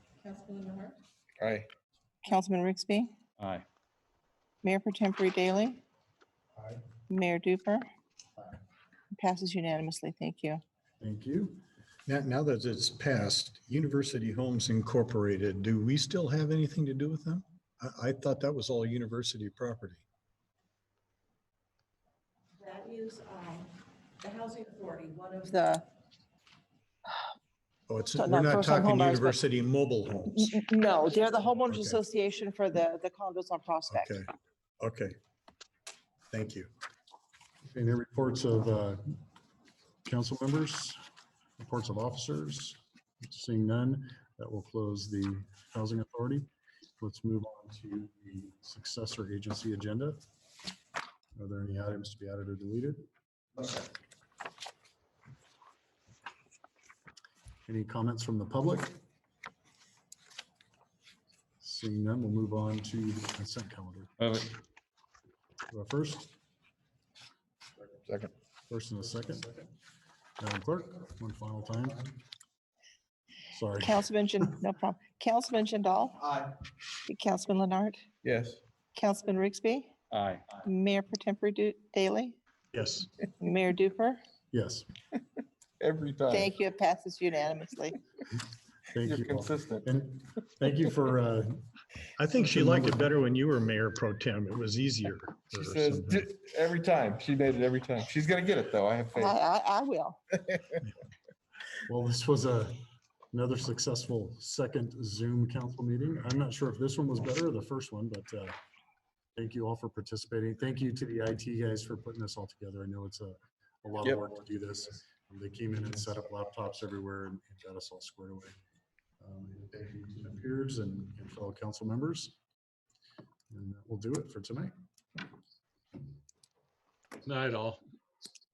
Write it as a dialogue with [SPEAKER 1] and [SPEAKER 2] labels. [SPEAKER 1] Councilmember Hart?
[SPEAKER 2] Aye.
[SPEAKER 3] Councilman Rixby,
[SPEAKER 4] Aye.
[SPEAKER 3] Mayor for Temporary Daily,
[SPEAKER 5] Aye.
[SPEAKER 3] Mayor Duper.
[SPEAKER 5] Aye.
[SPEAKER 3] Passes unanimously. Thank you.
[SPEAKER 5] Thank you. Now, now that it's passed, University Homes Incorporated, do we still have anything to do with them? I, I thought that was all university property.
[SPEAKER 1] That is um, the Housing Authority, one of the,
[SPEAKER 3] The,
[SPEAKER 5] Oh, it's,
[SPEAKER 3] So
[SPEAKER 5] we're
[SPEAKER 3] not
[SPEAKER 5] not
[SPEAKER 3] first-time
[SPEAKER 5] talking
[SPEAKER 3] homeowners, but-
[SPEAKER 5] university mobile homes.
[SPEAKER 3] n- n- no, they're the homeowners
[SPEAKER 5] Okay.
[SPEAKER 3] association for the, the condos on Prospect.
[SPEAKER 5] Okay, okay. Thank you.
[SPEAKER 6] Any reports of uh, council members, reports of officers? Seeing none, that will close the Housing Authority. Let's move on to the successor agency agenda. Are there any items to be added or deleted? Any comments from the public? Seeing none, we'll move on to the consent calendar.
[SPEAKER 4] Move it.
[SPEAKER 6] Uh, First,
[SPEAKER 2] Second.
[SPEAKER 6] First and a second. Madam Clerk, one final time. Sorry.
[SPEAKER 3] Councilman, Jan- no problem. Councilman Jindal,
[SPEAKER 7] Aye.
[SPEAKER 3] Councilman Leonard,
[SPEAKER 2] Yes.
[SPEAKER 3] Councilman Rixby,
[SPEAKER 4] Aye.
[SPEAKER 3] Mayor for Temporary Du- Daily,
[SPEAKER 6] Yes.
[SPEAKER 3] Mayor Duper.
[SPEAKER 6] Yes.
[SPEAKER 2] Every time.
[SPEAKER 3] Thank you. It passes unanimously.
[SPEAKER 6] Thank
[SPEAKER 2] You're
[SPEAKER 6] you. all.
[SPEAKER 2] consistent.
[SPEAKER 6] And thank you for, uh,
[SPEAKER 5] I think she liked it better when you were mayor pro tem. It was easier.
[SPEAKER 2] She
[SPEAKER 5] or
[SPEAKER 2] says,
[SPEAKER 5] something.
[SPEAKER 2] "D- every time. She made it every time. She's gonna get it though. I have
[SPEAKER 3] I,
[SPEAKER 2] faith.
[SPEAKER 3] I, I will.
[SPEAKER 6] well, this was a, another successful second Zoom council meeting. I'm not sure if this one was better or the first one, but uh, thank you all for participating. Thank you to the IT guys for putting this all together. I know it's a, a lot of
[SPEAKER 2] Yep.
[SPEAKER 6] work to do this. Um, They came in and set up laptops everywhere and and got us all squared away. Um, and Thank you to my peers and and fellow council members. And that will do it for tonight.
[SPEAKER 8] Night all.